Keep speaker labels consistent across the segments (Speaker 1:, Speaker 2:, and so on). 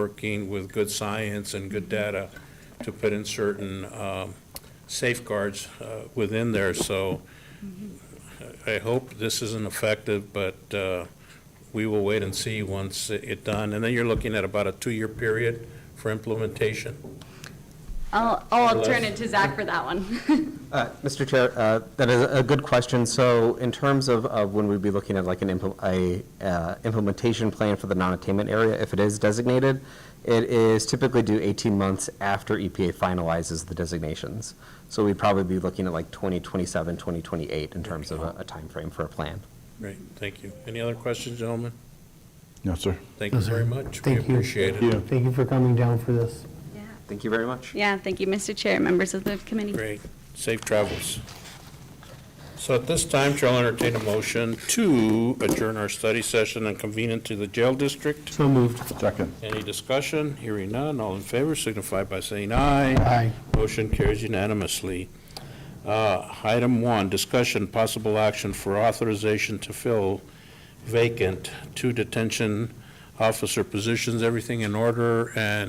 Speaker 1: working with good science and good data to put in certain um, safeguards uh, within there. So I I hope this isn't effective, but uh, we will wait and see once it it done. And then you're looking at about a two-year period for implementation.
Speaker 2: I'll, I'll turn it to Zach for that one.
Speaker 3: Uh, Mr. Chair, uh, that is a good question. So in terms of of when we'd be looking at like an impl- a, uh, implementation plan for the non-attainment area, if it is designated, it is typically due 18 months after EPA finalizes the designations. So we'd probably be looking at like 2027, 2028 in terms of a a timeframe for a plan.
Speaker 1: Great, thank you. Any other questions, gentlemen?
Speaker 4: No, sir.
Speaker 1: Thank you very much. We
Speaker 5: Thank you.
Speaker 1: appreciate it.
Speaker 5: Thank you for coming down for this.
Speaker 3: Thank you very much.
Speaker 2: Yeah, thank you, Mr. Chair, members of the committee.
Speaker 1: Great. Safe travels. So at this time, shall entertain a motion to adjourn our study session and convene into the jail district.
Speaker 5: So moved.
Speaker 4: Second.
Speaker 1: Any discussion? Hearing none. All in favor signify by saying aye.
Speaker 5: Aye.
Speaker 1: Motion carries unanimously. Uh, Item one, discussion, possible action for authorization to fill vacant two detention officer positions. Everything in order and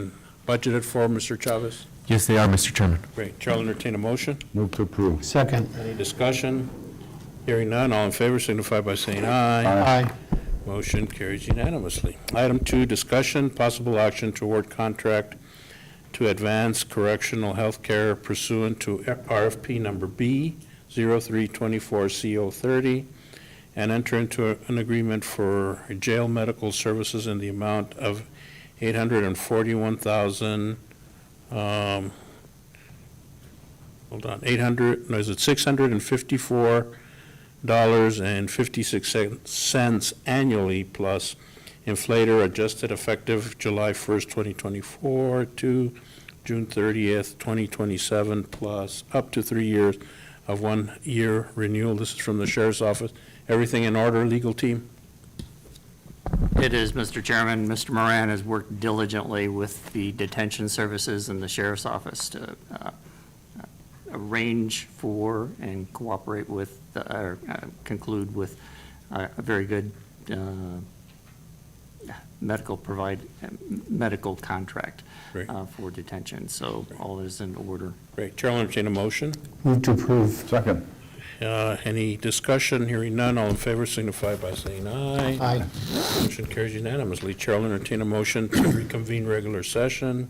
Speaker 1: budgeted for, Mr. Chavez?
Speaker 6: Yes, they are, Mr. Chairman.
Speaker 1: Great. Shall entertain a motion?
Speaker 4: Move to approve.
Speaker 5: Second.
Speaker 1: Any discussion? Hearing none, all in favor signify by saying aye.
Speaker 5: Aye.
Speaker 1: Motion carries unanimously. Item two, discussion, possible action toward contract to advance correctional health care pursuant to RFP number B 0324CO30 and enter into an agreement for jail medical services in the amount of 841,000, um, hold on, 800, no, is it 654 dollars and fifty-six cents annually plus inflator adjusted effective July first, twenty twenty-four to June thirtieth, twenty twenty-seven, plus up to three years of one-year renewal. This is from the sheriff's office. Everything in order, legal team?
Speaker 7: It is, Mr. Chairman. Mr. Moran has worked diligently with the detention services and the sheriff's office to uh, arrange for and cooperate with, the- or uh, conclude with uh, a very good uh, medical provide, uh, medical contract
Speaker 1: Great.
Speaker 7: uh, for detention. So all is in order.
Speaker 1: Great. Chair will entertain a motion.
Speaker 5: Move to approve.
Speaker 4: Second.
Speaker 1: Uh, Any discussion? Hearing none. All in favor signify by saying aye.
Speaker 5: Aye.
Speaker 1: Motion carries unanimously. Chair will entertain a motion to reconvene regular session.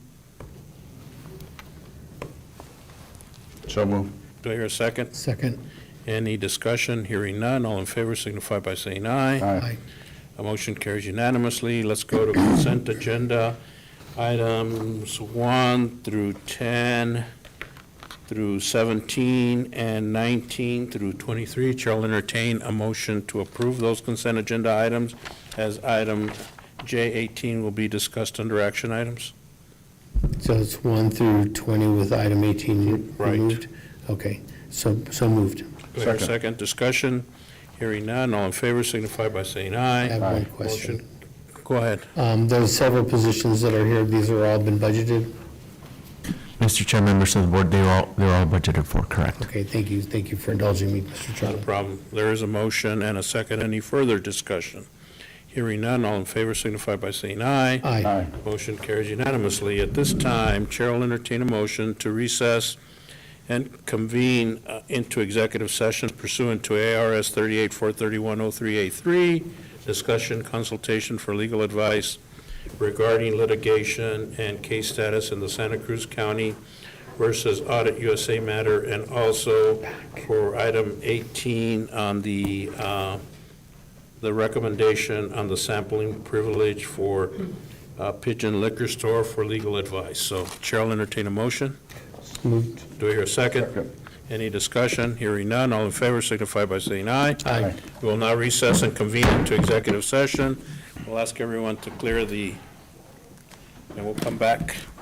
Speaker 4: So move.
Speaker 1: Do I hear a second?
Speaker 5: Second.
Speaker 1: Any discussion? Hearing none. All in favor signify by saying aye.
Speaker 4: Aye.
Speaker 1: A motion carries unanimously. Let's go to consent agenda. Items 1 through 10 through 17 and 19 through 23. Chair will entertain a motion to approve those consent agenda items as item J18 will be discussed under action items.
Speaker 5: So it's 1 through 20 with item 18
Speaker 1: Right.
Speaker 5: removed? Okay, so, so moved.
Speaker 1: Do I hear a
Speaker 4: Second.
Speaker 1: second discussion? Hearing none. All in favor signify by saying
Speaker 5: I have
Speaker 1: aye.
Speaker 5: one
Speaker 4: Aye.
Speaker 5: question.
Speaker 1: Go ahead.
Speaker 5: Um, There's several positions that are here. These are all been budgeted?
Speaker 6: Mr. Chair, members of the board, they're all, they're all budgeted for, correct?
Speaker 5: Okay, thank you. Thank you for indulging me, Mr.
Speaker 1: Not a
Speaker 5: Chairman.
Speaker 1: problem. There is a motion and a second. Any further discussion? Hearing none, all in favor signify by saying aye.
Speaker 5: Aye.
Speaker 4: Aye.
Speaker 1: Motion carries unanimously. At this time, Chair will entertain a motion to recess and convene uh, into executive session pursuant to ARS 3843103A3, discussion consultation for legal advice regarding litigation and case status in the Santa Cruz County versus Audit USA matter, and also for item 18 on the, uh, the recommendation on the sampling privilege for uh, Pigeon Liquor Store for legal advice. So Chair will entertain a motion.
Speaker 5: Moved.
Speaker 1: Do I hear a second?
Speaker 4: Second.
Speaker 1: Any discussion? Hearing none, all in favor signify by saying aye.
Speaker 4: Aye.
Speaker 1: We will now recess and convene into executive session. We'll ask everyone to clear the, and we'll come back.